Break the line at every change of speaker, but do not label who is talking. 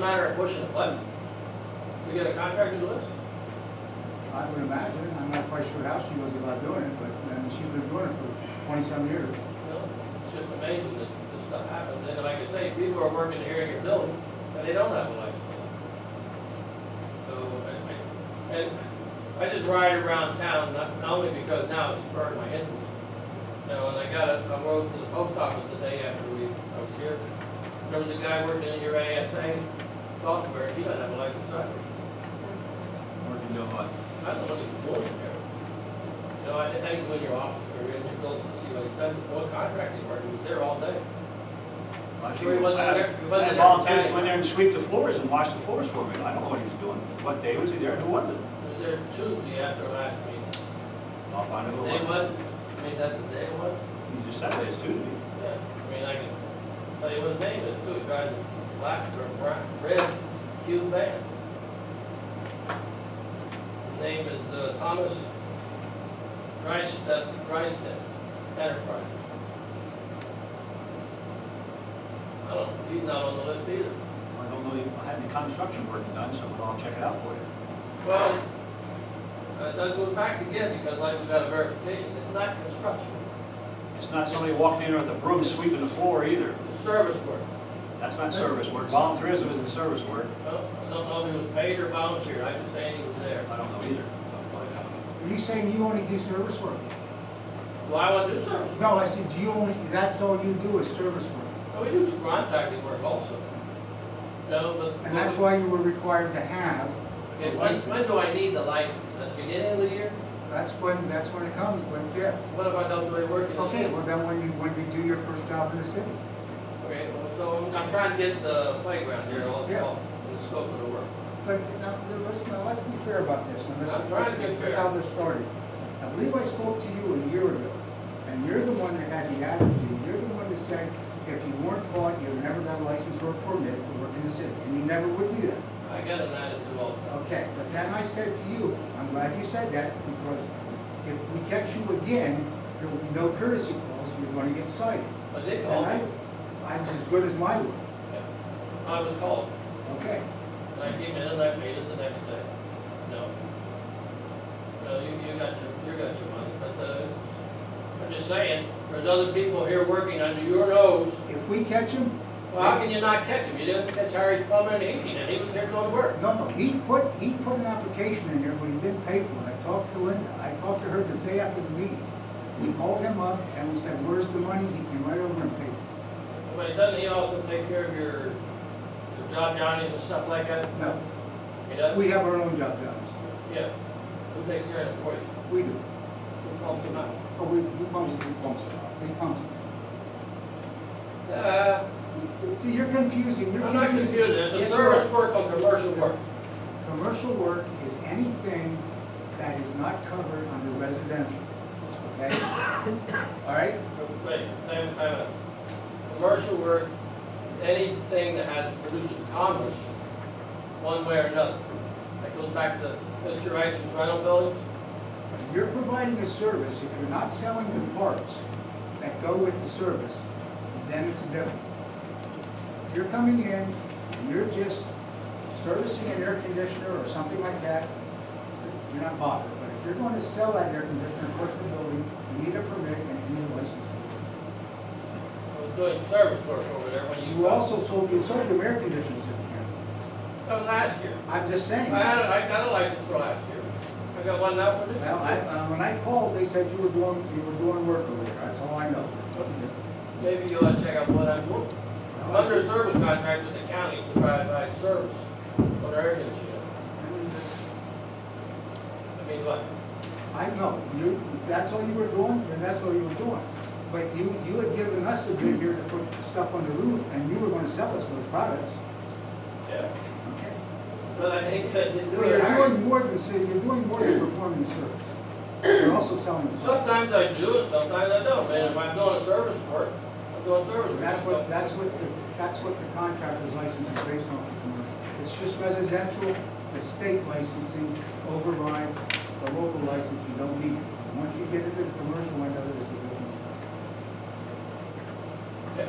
matter of pushing a button. We get a contractor to list?
I would imagine, I'm not quite sure how she was about doing it, but, and she's been doing it for twenty-some years.
No, it's just amazing that this stuff happens, and like I say, people are working here in your building, and they don't have a license. So, I- I- and I just ride around town, not, not only because now it's spurred my interest. You know, and I got a, I rode to the post office today after we, I was here, there was a guy working in your ASA software, he doesn't have a license either.
Working no hot.
I don't look at the board in there. You know, I didn't, I didn't go in your office or in your building to see what he's done, what contract he worked, he was there all day. Sure, he wasn't there- he wasn't
I
there.
had volunteers go in there and sweep the floors and wash the floors for me. I don't know what he was doing. What day was he there? Who was it?
He was there Tuesday after last meeting.
I'll find out
The
who
day
it was.
was, I mean, that's the day was,
He just said it was Tuesday.
yeah, I mean, I can tell you what his name is, too, he drives a black or brown, red Cuban van. His name is, uh, Thomas Rice, uh, Rice Enterprise. I don't, he's not on the list either.
I don't know, if I had any construction work done, so I'll check it out for you.
Well, it does go back again, because I have got a verification, it's not construction,
It's not somebody walking in with a broom sweeping the floor either.
it's service work.
That's not service work. Volunteerism isn't service work.
Well, I don't know if he was paid or volunteer, I'm just saying he was there.
I don't know either. uh, I'll find out.
Are you saying you only do service work?
Well, I want to do service, work.
No, I said, do you only, that's all you do is service work?
Well, we do contracting work also. No, but.
And that's why you were required to have a
Okay, when,
license?
when do I need the license, at the beginning of the year?
That's when, that's when it comes, when, yeah.
What if I don't do any work in the
Okay,
city?
well, then when you, when you do your first job in the city?
Okay, well, so I'm, I'm trying to get the playground here, all,
Yeah.
all, in the scope of the work.
But now, listen, now, let's be fair about this, and
I'm trying to be
this, this is
fair.
how this started. I believe I spoke to you a year ago, and you're the one that had the attitude, you're the one that said, if you weren't caught, you've never got a license or a permit to work in the city, and you never would do that.
I got an attitude all the time.
Okay, but then I said to you, I'm glad you said that, because if we catch you again, there will be no courtesy calls, you're gonna get cited.
But they
And
called
I,
me.
I was as good as my word,
Yeah. I was called.
okay?
And I came in and I paid it the next day. No. No, you, you got your, you got your money, but, uh, I'm just saying, there's other people here working under your nose.
If we catch him,
Well, how can you not catch him? You didn't catch Harry Plummer in eighteen, and he was here going to work.
No, no, he put, he put an application in there, but he didn't pay for it. I talked to Linda, I talked to her the day after the meeting. We called him up and we said, where's the money? He came right over and paid.
But doesn't he also take care of your, your job Johnnies and stuff like that?
No,
He does?
we have our own job jobs.
Yeah. Who takes care of it for you?
We do.
Who pumps him out?
Oh, we, we pumps it, we pumps it, we pumps
Uh,
it. See, you're confusing, you're confusing.
I'm not confused.
Yes,
It's a
you
service
are.
work on commercial work.
Commercial work is anything that is not covered under residential, okay? All right?
Wait, time, time out. Commercial work, anything that has produces commerce, one way or another. That goes back to Mr. Rice's rental buildings.
You're providing a service, if you're not selling the parts that go with the service, then it's different. If You're coming in, and you're just servicing an air conditioner or something like that, you're not bothered. But if you're going to sell that air conditioner across the building, you need a permit and you need a license.
I was doing service work over there when you.
You also sold, you sold your air conditioners to the county.
That was last year.
I'm just
I
saying.
had, I got a license for last year. I got one now for this
Well, I,
year.
uh, when I called, they said you were doing, you were doing work over there, that's all I know.
Maybe you ought to check out what I'm doing. I'm under a service contract with the county to provide my service on air conditioning. I mean, what?
I know, you, if that's all you were doing, then that's all you were doing. But you, you had given us the bid here to put stuff on the roof, and you were gonna sell us those products.
Yeah.
Okay.
But I think that didn't do
Well,
it.
you're
Harry.
doing more than, say, you're doing more than performing the service. You're also selling the service.
Sometimes I do and sometimes I don't, man. If I'm doing a service work, I'm doing service work.
That's what, that's what, the that's what the contractor's license is based on for commercial. It's just residential, the state licensing overrides the local license, you don't need it. Once you get into the commercial end of it, it's a